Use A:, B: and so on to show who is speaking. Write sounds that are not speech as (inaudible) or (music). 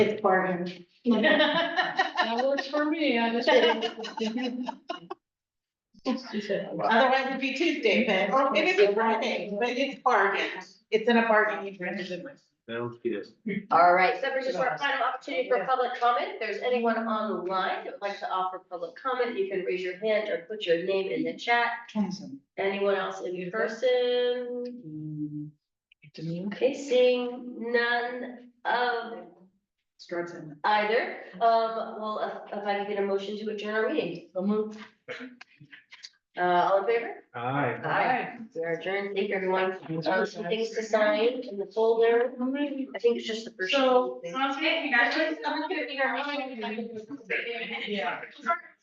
A: It's bargain.
B: (laughs) That works for me, I just.
A: Otherwise it'd be Tuesday, then, or maybe it'd be Friday, but it's bargain. It's in a bargain, you've rented
C: Sounds good.
D: All right, so this is our final opportunity for public comment. If there's anyone on the line that would like to offer public comment, you can raise your hand or put your name in the chat. Anyone else in person? Okay, seeing none of
A: Starts in.
D: either. Um, well, if- if I could get a motion to adjourn our meeting. I'll move. Uh, all in favor?
C: Aye.
D: Aye. We are adjourned. Thank you, everyone. Um, some things to sign in the folder. I think it's just the first.
B: So,
D: thing.
A: Okay,
B: congratulations. I'm gonna figure out how I'm gonna do it.
A: Yeah.